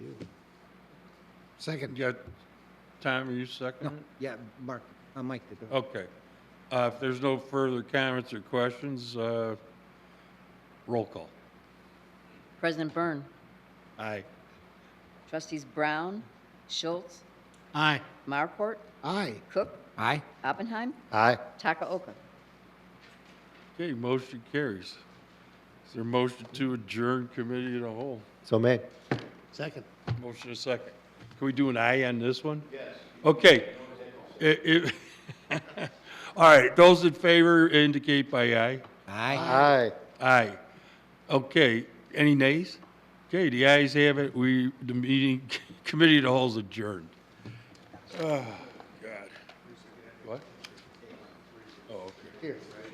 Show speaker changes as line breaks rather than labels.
Second.
You got, Tom, are you second?
Yeah, Mark, uh, Mike did. it.
Okay. Uh, If there's no further comments or questions, uh, roll call.
President Byrne,
Aye.
trustees Brown, Schultz,
Aye.
Marport,
Aye.
Cook,
Aye.
Oppenheim,
Aye.
Takaoka.
Okay, motion carries. Is there a motion to adjourn committee in a whole?
So made.
Second.
Motion a second. Can we do an aye on this one? Yes. Okay. It- it- All right, those in favor indicate by aye.
Aye.
Aye.
Aye. Okay, any nays? Okay, the ayes have it, we, the meeting, committee of the whole is adjourned. Oh, God. What? Oh, okay.
Here.